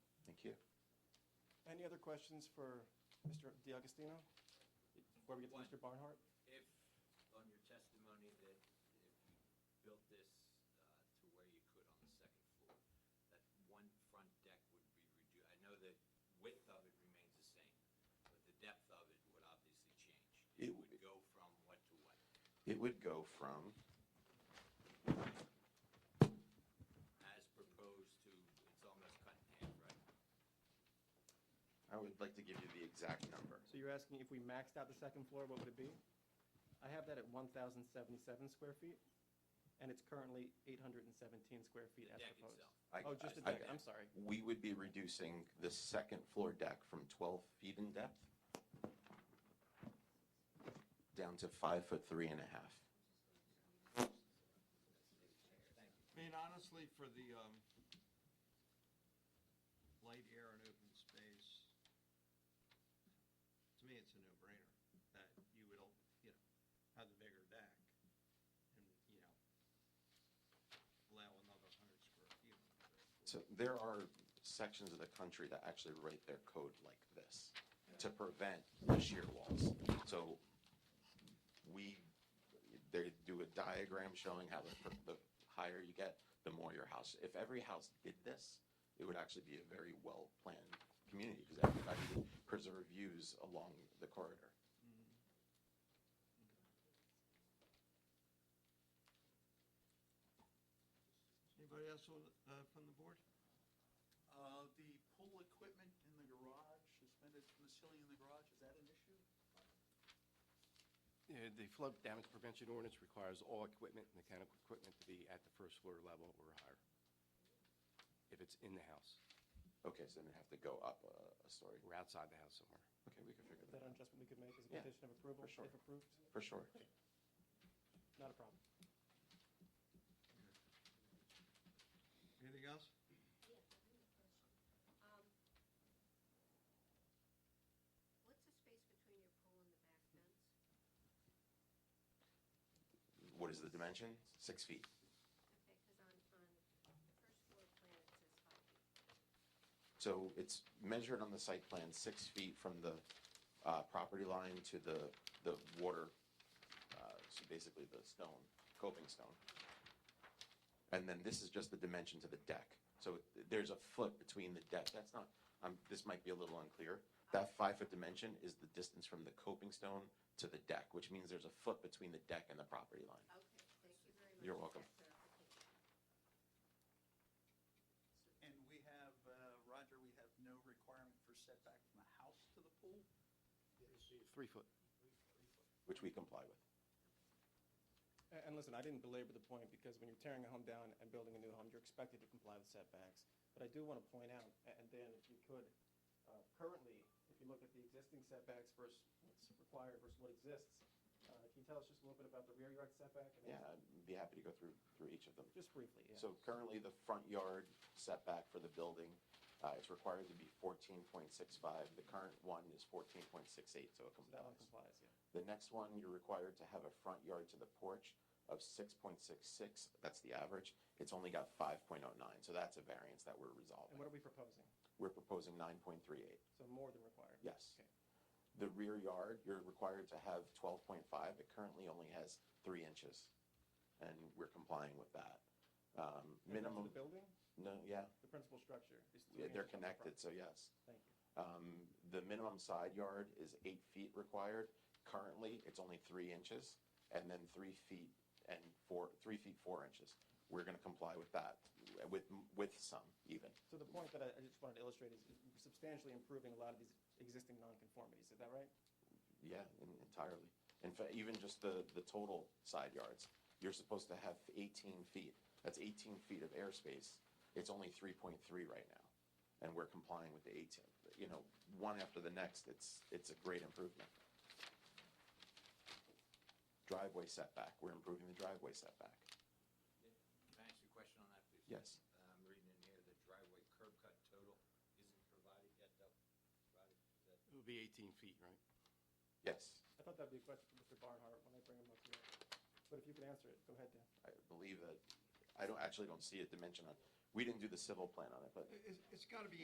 Any other questions for Mr. DiAgostino? Before we get to One. Mr. Barnhart? If, on your testimony that if you built this uh, to where you could on the second floor, that one front deck would be reduced, I know the width of it remains the same, but the depth of it would obviously change. It It would would go from what to what? It would go from, As proposed to, it's almost cut in half, right? I would like to give you the exact number. So you're asking if we maxed out the second floor, what would it be? I have that at 1,077 square feet, and it's currently 817 square feet The as deck proposed. itself. I- Oh, just the I- deck, I'm sorry. We would be reducing the second floor deck from 12 feet in depth down to five foot three and a half. I mean, honestly, for the, um, light air and open space, to me, it's a no-brainer that you would, all you know, have the bigger deck and, you know, allow another hundred square feet. on the third floor. So there are sections of the country that actually write their code like this to prevent the shear walls. So we, they do a diagram showing how the, the higher you get, the more your house. If every house did this, it would actually be a very well-planned community because everybody would preserve views along the corridor. Anybody else on, uh, from the board? Uh, The pool equipment in the garage, suspended from the ceiling in the garage, is that an issue? Yeah, Uh, The flood damage prevention ordinance requires all equipment, mechanical equipment, to be at the first floor level or higher, if it's in the house Okay, so then they have to go up a, a story. or outside the house somewhere. Okay, we can figure Is that that out, an adjustment we could make as a Yeah, condition of approval, for if sure. approved? for sure. Not a problem. Anything else? Yes, I have a question. Um, What's the space between your pool and the back fence? What is the dimension? Six feet. Okay, because on, on the first floor plan, it says five feet. So it's measured on the site plan, six feet from the uh, property line to the, the water, uh, so basically the stone, coping stone. And then this is just the dimension to the deck. So there's a foot between the deck. That's not, um, this might be a little unclear. That five-foot dimension is the distance from the coping stone to the deck, which means there's a foot between the deck and the property line. Okay, thank you very much. You're for welcome. that clarification. So- And we have, uh, Roger, we have no requirement for setback from the house to the pool? Three foot. Which we comply with. A- And listen, I didn't belabor the point, because when you're tearing a home down and building a new home, you're expected to comply with setbacks. But I do want to point out, a- and Dan, if you could, uh, currently, if you look at the existing setbacks versus what's required versus what exists, uh, can you tell us just a little bit about the rear yard setback? and- Yeah, I'd be happy to go through, through each of them. Just briefly, yeah. So currently, the front yard setback for the building, uh, it's required to be fourteen point six five. The current one is fourteen point six eight, so it So That one complies. complies, yeah. The next one, you're required to have a front yard to the porch of six point six six, that's the average. It's only got five point oh nine, so that's a variance that we're And what are resolving. we proposing? We're proposing nine point three eight. So more than required? Yes. Okay. The rear yard, you're required to have twelve point five, it currently only has three inches, and we're complying with that. Um, And then to Minimum. The building, No, yeah, the principal structure is three Yeah, they're inches from the front. connected, so yes. Thank you. Um, The minimum side yard is eight feet required. Currently, it's only three inches, and then three feet and four, three feet, four inches. We're gonna comply with that, with, with some even. So the point that I I just wanted to illustrate is substantially improving a lot of these existing nonconformities, is that right? Yeah, en- entirely. In fact, even just the, the total side yards, you're supposed to have eighteen feet. That's eighteen feet of airspace. It's only three point three right now, and we're complying with the eighteen. You know, one after the next, it's, it's a great improvement. Driveway setback, we're improving the driveway setback. Can I ask you a question on that, please? Uh, Yes. I'm reading in here, the driveway curb cut total isn't provided yet, though. Provided, is that- It would be 18 feet, right? Yes, I thought that'd be a question for Mr. Barnhart when I bring him up here. But if you can answer it, go ahead, Dan. I believe that, I don't, actually don't see a dimension on, we didn't do the civil plan on it, but It- It's, it's gotta be